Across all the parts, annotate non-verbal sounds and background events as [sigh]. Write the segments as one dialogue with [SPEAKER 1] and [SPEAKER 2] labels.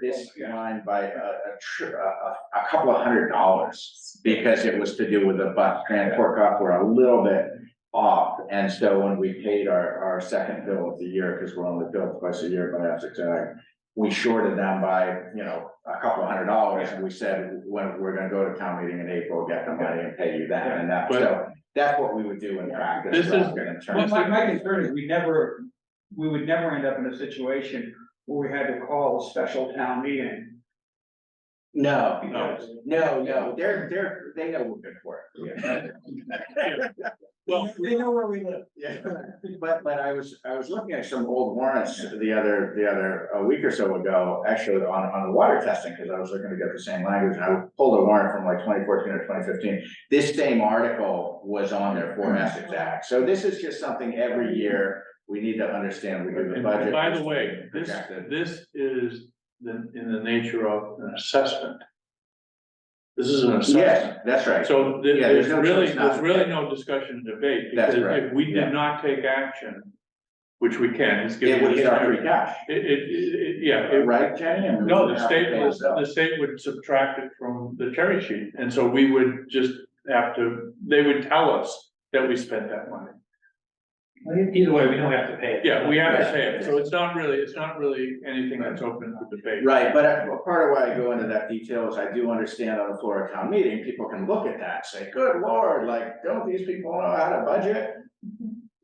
[SPEAKER 1] this line by a, a tr- a, a- a couple of hundred dollars. Because it was to do with the bus transport costs were a little bit off. And so when we paid our, our second bill of the year, because we're only billed twice a year by Essex Ag. We shorted them by, you know, a couple of hundred dollars and we said, when we're gonna go to town meeting in April, get the money and pay you that and that. So that's what we would do in practice.
[SPEAKER 2] This is-
[SPEAKER 1] rather than in
[SPEAKER 3] Well,
[SPEAKER 1] terms
[SPEAKER 3] my,
[SPEAKER 1] of-
[SPEAKER 3] my concern is we never, we would never end up in a situation where we had to call a special town meeting.
[SPEAKER 1] No, no,
[SPEAKER 3] because-
[SPEAKER 1] no, no, they're, they're, they know we're good for it. [laughs]
[SPEAKER 2] Well,
[SPEAKER 3] They know where we live.
[SPEAKER 1] Yeah, but, but I was, I was looking at some old warrants the other, the other, a week or so ago, actually on, on the water testing, because I was looking to get the same language, and I pulled a warrant from like twenty fourteen or twenty fifteen. This same article was on there
[SPEAKER 2] Mm-hmm.
[SPEAKER 1] for Essex Act, so this is just something every year, we need to understand, we do the
[SPEAKER 2] and
[SPEAKER 1] budget.
[SPEAKER 2] by the way, this,
[SPEAKER 1] projected.
[SPEAKER 2] this is the, in the nature of an assessment. This is an assessment.
[SPEAKER 1] Yes, that's right,
[SPEAKER 2] So there-
[SPEAKER 1] Yeah,
[SPEAKER 2] there's
[SPEAKER 1] there's no
[SPEAKER 2] really,
[SPEAKER 1] choice not
[SPEAKER 2] there's
[SPEAKER 1] to
[SPEAKER 2] really
[SPEAKER 1] take.
[SPEAKER 2] no discussion and debate,
[SPEAKER 1] That's
[SPEAKER 2] because if
[SPEAKER 1] correct,
[SPEAKER 2] we
[SPEAKER 1] yeah.
[SPEAKER 2] did not take action, which we can, it's
[SPEAKER 1] it
[SPEAKER 2] given.
[SPEAKER 1] would
[SPEAKER 2] this
[SPEAKER 1] hit our
[SPEAKER 2] time,
[SPEAKER 1] free cash,
[SPEAKER 2] It, it, it, yeah, it-
[SPEAKER 1] right, Jenny? And we
[SPEAKER 2] no,
[SPEAKER 1] would
[SPEAKER 2] the
[SPEAKER 1] have to
[SPEAKER 2] state,
[SPEAKER 1] pay
[SPEAKER 2] would-
[SPEAKER 1] ourselves.
[SPEAKER 2] the state would subtract it from the cherry sheet, and so we would just have to, they would tell us that we spent that money.
[SPEAKER 4] Either way, we don't have to pay it.
[SPEAKER 2] Yeah, we have to
[SPEAKER 1] Right.
[SPEAKER 2] say it, so it's not really, it's not really anything that's open to debate.
[SPEAKER 1] Right, but uh, well, part of why I go into that detail is I do understand on the floor of town meeting, people can look at that, and say, good lord, like, don't these people know how to budget?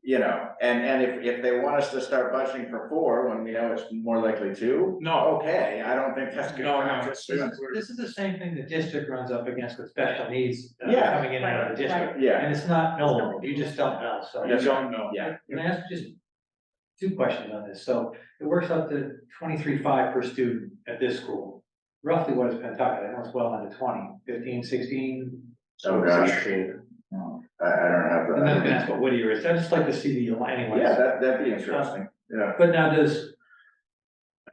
[SPEAKER 1] You know, and, and if, if they want us to start budgeting for four, when we know it's more likely two,
[SPEAKER 5] Oh,
[SPEAKER 2] No,
[SPEAKER 1] okay, I don't think that's good.
[SPEAKER 2] No, no,
[SPEAKER 1] practice.
[SPEAKER 2] it's-
[SPEAKER 4] This is the same thing the district runs up against with special needs uh,
[SPEAKER 1] Yeah.
[SPEAKER 4] coming in and out of the district.
[SPEAKER 1] Yeah,
[SPEAKER 4] And it's not knowable, you just don't know, so.
[SPEAKER 2] you don't know.
[SPEAKER 1] yeah,
[SPEAKER 4] Can I ask just two questions on this? So it works out to twenty-three five per student at this school. Roughly what is Pentucket? I know it's well under 20, 15, 16.
[SPEAKER 1] oh gosh, I, I don't have
[SPEAKER 4] I'm not gonna
[SPEAKER 1] that.
[SPEAKER 4] ask what Whittier is, I just like to see the line anyways.
[SPEAKER 1] Yeah, that, that'd be interesting, yeah,
[SPEAKER 4] But now does,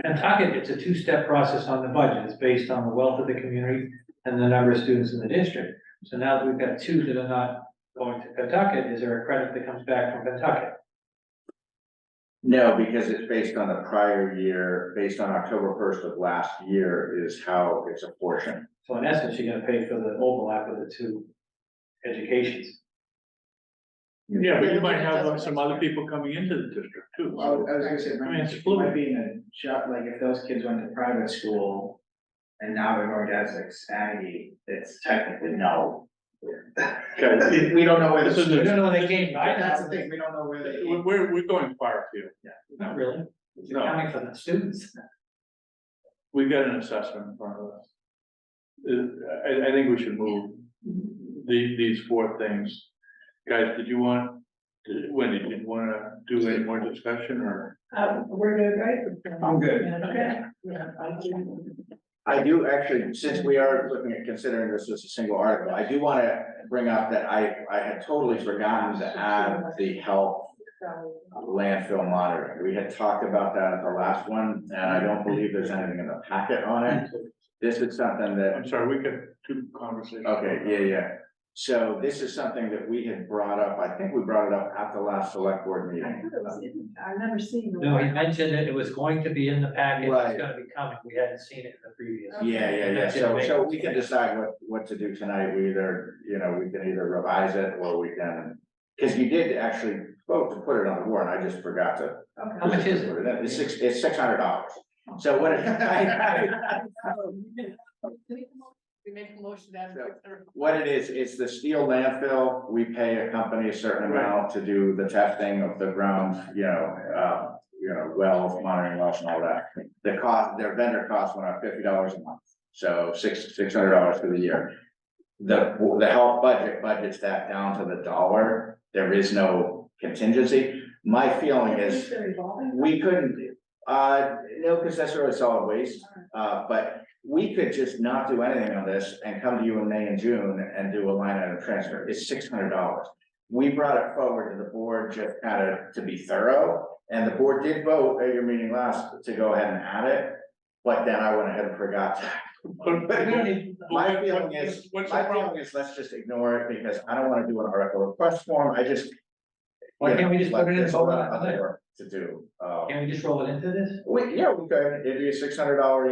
[SPEAKER 4] Pentucket, it's a two-step process on the budget, it's based on the wealth of the community and the number of students in the district. So now that we've got two that are not going to Pentucket, is there a credit that comes back from Pentucket?
[SPEAKER 1] no, because it's based on the prior year, based on October first of last year is how it's apportioned.
[SPEAKER 4] So in essence, you're gonna pay for the overlap of the two educations.
[SPEAKER 2] Yeah, but you might have uh, some other people coming into the district too.
[SPEAKER 5] Well, I was I was gonna say,
[SPEAKER 2] I mean, it's
[SPEAKER 5] it
[SPEAKER 2] fluid.
[SPEAKER 5] might be in a shop, like if those kids went to private school and now they're going to Essex Aggie, it's technically no.
[SPEAKER 2] Okay,
[SPEAKER 5] [laughs] We don't know where
[SPEAKER 2] This is
[SPEAKER 5] the,
[SPEAKER 2] a-
[SPEAKER 4] You don't know they came by,
[SPEAKER 5] that's the thing, we don't know where they.
[SPEAKER 2] we're, we're, we're going far afield.
[SPEAKER 4] Not really, it's
[SPEAKER 2] No.
[SPEAKER 4] accounting for the students.
[SPEAKER 2] We've got an assessment in front of us. Uh, I, I think we should move the, these four things. Guys, did you want, did- Wendy, did you wanna do any more discussion or?
[SPEAKER 6] Um, we're good, right?
[SPEAKER 3] I'm good.
[SPEAKER 6] Okay. Yeah, I do.
[SPEAKER 1] I do actually, since we are looking at considering this as a single article, I do wanna bring up that I, I had totally forgotten to add the health
[SPEAKER 6] So,
[SPEAKER 1] landfill monitoring. We had talked about that at the last one, and I don't believe there's anything in the packet on it. This is something that
[SPEAKER 2] I'm sorry, we got two conversations.
[SPEAKER 1] Okay, yeah, yeah. So this is something that we had brought up, I think we brought it up at the last select board
[SPEAKER 6] I
[SPEAKER 1] meeting.
[SPEAKER 6] thought it was in- I've never seen. the-
[SPEAKER 4] No, he mentioned it, it was going to be in the packet,
[SPEAKER 1] Right.
[SPEAKER 4] it's gonna be coming, we hadn't seen it in the previous.
[SPEAKER 1] Yeah, yeah, yeah,
[SPEAKER 4] That's it,
[SPEAKER 1] so,
[SPEAKER 4] right.
[SPEAKER 1] so we can decide what, what to do tonight, we either, you know, we can either revise it or we can. Cause you did actually vote to put it on the warrant, I just forgot to.
[SPEAKER 6] Okay.
[SPEAKER 4] How much is it?
[SPEAKER 1] It's six, it's six hundred dollars, so
[SPEAKER 6] [laughs]
[SPEAKER 1] what? [laughs] it-
[SPEAKER 6] We make a motion that.
[SPEAKER 1] What it is, it's the steel landfill, we pay a company a certain amount to do the testing of the ground, you know, uh. You know, wells, monitoring wells and all that, the cost, their vendor cost went up fifty dollars a month, so six, six hundred dollars for the year. The, the health budget budgets that down to the dollar, there is no contingency, my feeling is.
[SPEAKER 6] Is it revolving?
[SPEAKER 1] We couldn't, uh, no, because that's really solid waste, uh, but we could just not do anything on this and come to you in May and June and do a line item transfer, it's six hundred dollars. We brought it forward to the board just kind of to be thorough, and the board did vote at your meeting last to go ahead and add it. But then I went ahead and forgot.
[SPEAKER 2] But- but we don't need-
[SPEAKER 1] My feeling is,
[SPEAKER 2] What's the
[SPEAKER 1] my
[SPEAKER 2] problem?
[SPEAKER 1] feeling is, let's just ignore it because I don't want to do an article request form, I just.
[SPEAKER 4] Why can't we just put it in
[SPEAKER 1] There's a
[SPEAKER 4] vote
[SPEAKER 1] lot
[SPEAKER 4] on
[SPEAKER 1] of
[SPEAKER 4] it?
[SPEAKER 1] other work To do, uh,
[SPEAKER 4] Can we just roll it into this?
[SPEAKER 1] we, yeah, we could, it'd be a six hundred dollar